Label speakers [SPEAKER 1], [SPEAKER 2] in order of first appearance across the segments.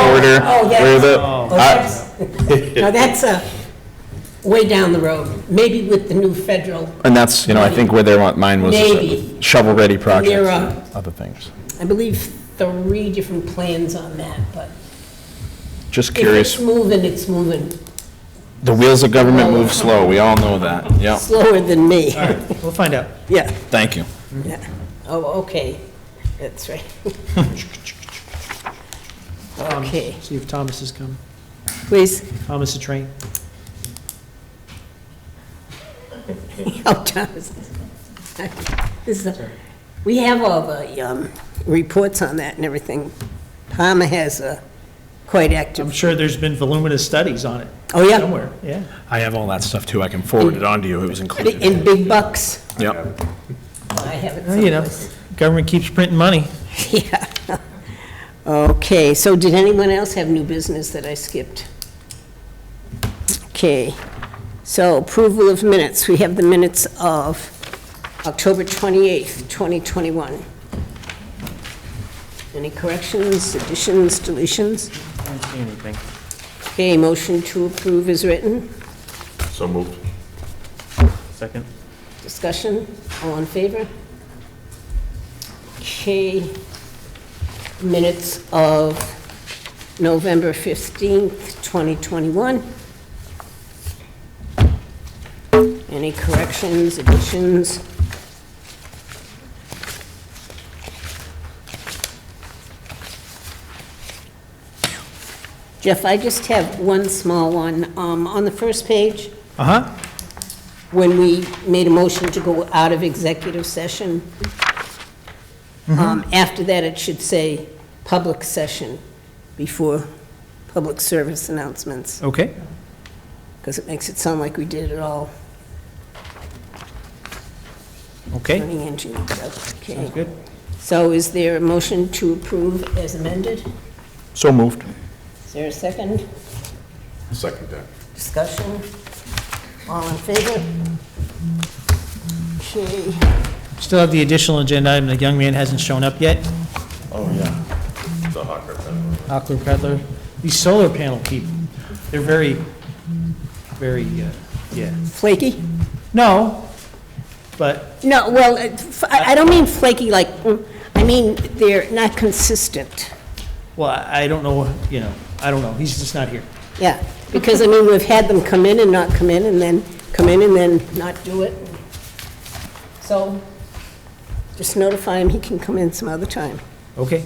[SPEAKER 1] corner.
[SPEAKER 2] Oh, yes.
[SPEAKER 1] where the-
[SPEAKER 2] Oh,
[SPEAKER 1] I-
[SPEAKER 2] that's, now that's uh, way down the road, maybe with the new federal,
[SPEAKER 1] And that's, you know, I think where their mine was,
[SPEAKER 2] Maybe.
[SPEAKER 1] shovel-ready projects,
[SPEAKER 2] Near, uh,
[SPEAKER 1] and other things.
[SPEAKER 2] I believe three different plans on that, but
[SPEAKER 1] Just
[SPEAKER 2] if it's
[SPEAKER 1] curious,
[SPEAKER 2] moving, it's moving
[SPEAKER 1] the wheels of government move slow, we all know that. Yeah,
[SPEAKER 2] slower than me.
[SPEAKER 3] All right, we'll find out.
[SPEAKER 2] Yeah,
[SPEAKER 1] thank you.
[SPEAKER 2] yeah. Oh, okay, that's right.
[SPEAKER 3] Um,
[SPEAKER 2] Okay.
[SPEAKER 3] See if Thomas has come.
[SPEAKER 2] Please,
[SPEAKER 3] Thomas the train.
[SPEAKER 2] oh, Thomas. This is, a- we have all the um, reports on that and everything. Palmer has a quite
[SPEAKER 3] I'm
[SPEAKER 2] active,
[SPEAKER 3] sure there's been voluminous studies on it
[SPEAKER 2] oh, yeah,
[SPEAKER 3] somewhere, yeah.
[SPEAKER 1] I have all that stuff too, I can forward it on to you, it was included.
[SPEAKER 2] in big bucks.
[SPEAKER 1] Yep.
[SPEAKER 2] I have it
[SPEAKER 3] Well, Oh, You know,
[SPEAKER 2] someplace.
[SPEAKER 3] government keeps printing money.
[SPEAKER 2] Yeah. Okay, so did anyone else have new business that I skipped? Okay, so approval of minutes. We have the minutes of October 28th, 2021. Any corrections, additions, deletions?
[SPEAKER 3] I don't see anything.
[SPEAKER 2] Okay, motion to approve is written.
[SPEAKER 4] So moved.
[SPEAKER 3] Second.
[SPEAKER 2] Discussion, all in favor? Okay, minutes of November 15th, 2021. Any corrections, additions? Jeff, I just have one small one. Um, On the first page,
[SPEAKER 3] Uh-huh.
[SPEAKER 2] when we made a motion to go out of executive session,
[SPEAKER 3] Mm-hmm.
[SPEAKER 2] um, after that, it should say public session before public service announcements,
[SPEAKER 3] Okay.
[SPEAKER 2] because it makes it sound like we did it all
[SPEAKER 3] Okay.
[SPEAKER 2] running into each other.
[SPEAKER 3] Sounds
[SPEAKER 2] Okay.
[SPEAKER 3] good.
[SPEAKER 2] So is there a motion to approve as amended?
[SPEAKER 1] So moved.
[SPEAKER 2] Is there a second?
[SPEAKER 4] Second that.
[SPEAKER 2] Discussion? All in favor? Okay.
[SPEAKER 3] Still have the additional agenda item, the young man hasn't shown up yet.
[SPEAKER 4] Oh, yeah. The hawker. pepper.
[SPEAKER 3] Hockler Cutler. These solar panel people, they're very, very, uh, yeah.
[SPEAKER 2] Flaky?
[SPEAKER 3] No, but,
[SPEAKER 2] No, well, it- f- I I don't mean flaky like, mm, I mean, they're not consistent,
[SPEAKER 3] well, I I don't know, you know, I don't know, he's just not here.
[SPEAKER 2] yeah. Because, I mean, we've had them come in and not come in, and then come in and then not do it. So, just notify him he can come in some other time,
[SPEAKER 3] Okay.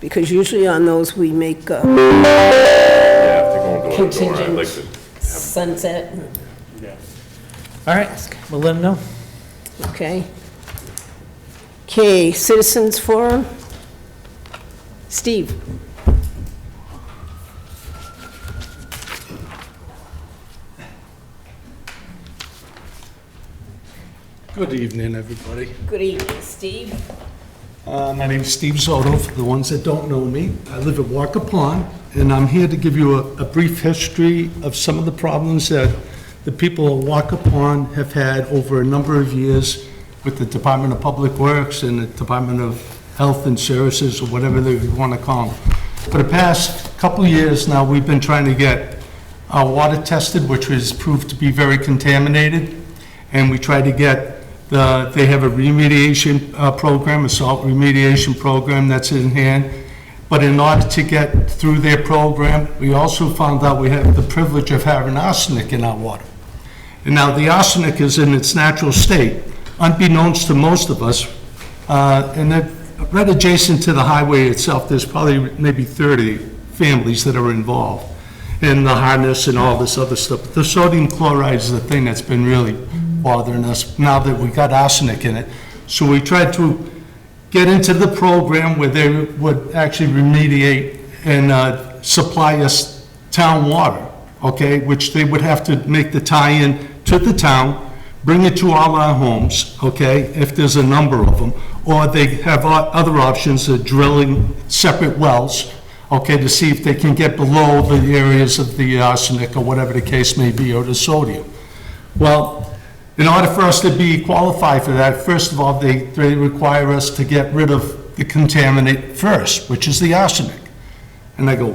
[SPEAKER 2] because usually on those, we make uh,
[SPEAKER 4] Yeah, if they're going door to door, I'd like to.
[SPEAKER 2] contingent sunset,
[SPEAKER 3] All right, we'll let him know.
[SPEAKER 2] okay? Okay, citizens forum? Steve?
[SPEAKER 5] Good evening, everybody.
[SPEAKER 2] Good evening, Steve.
[SPEAKER 5] Uh, My name's Steve Soto, for the ones that don't know me. I live at Walker Pond, and I'm here to give you a- a brief history of some of the problems that the people at Walker Pond have had over a number of years with the Department of Public Works and the Department of Health and Services, or whatever they want to call them. For the past couple of years now, we've been trying to get our water tested, which was proved to be very contaminated and we try to get the, they have a remediation uh, program, a salt remediation program that's in hand. But in order to get through their program, we also found out we have the privilege of having arsenic in our water. And now the arsenic is in its natural state, unbeknownst to most of us. Uh, And then, right adjacent to the highway itself, there's probably maybe 30 families that are involved in the harness and all this other stuff. The sodium chloride is the thing that's been really bothering us now that we got arsenic in it. So we tried to get into the program where they would actually remediate and uh, supply us town water, okay? Which they would have to make the tie-in to the town, bring it to all our homes, okay? If there's a number of them. Or they have o- other options of drilling separate wells, okay, to see if they can get below the areas of the arsenic or whatever the case may be, or the sodium. Well, in order for us to be qualified for that, first of all, they, they require us to get rid of the contaminant first, which is the arsenic. And I go,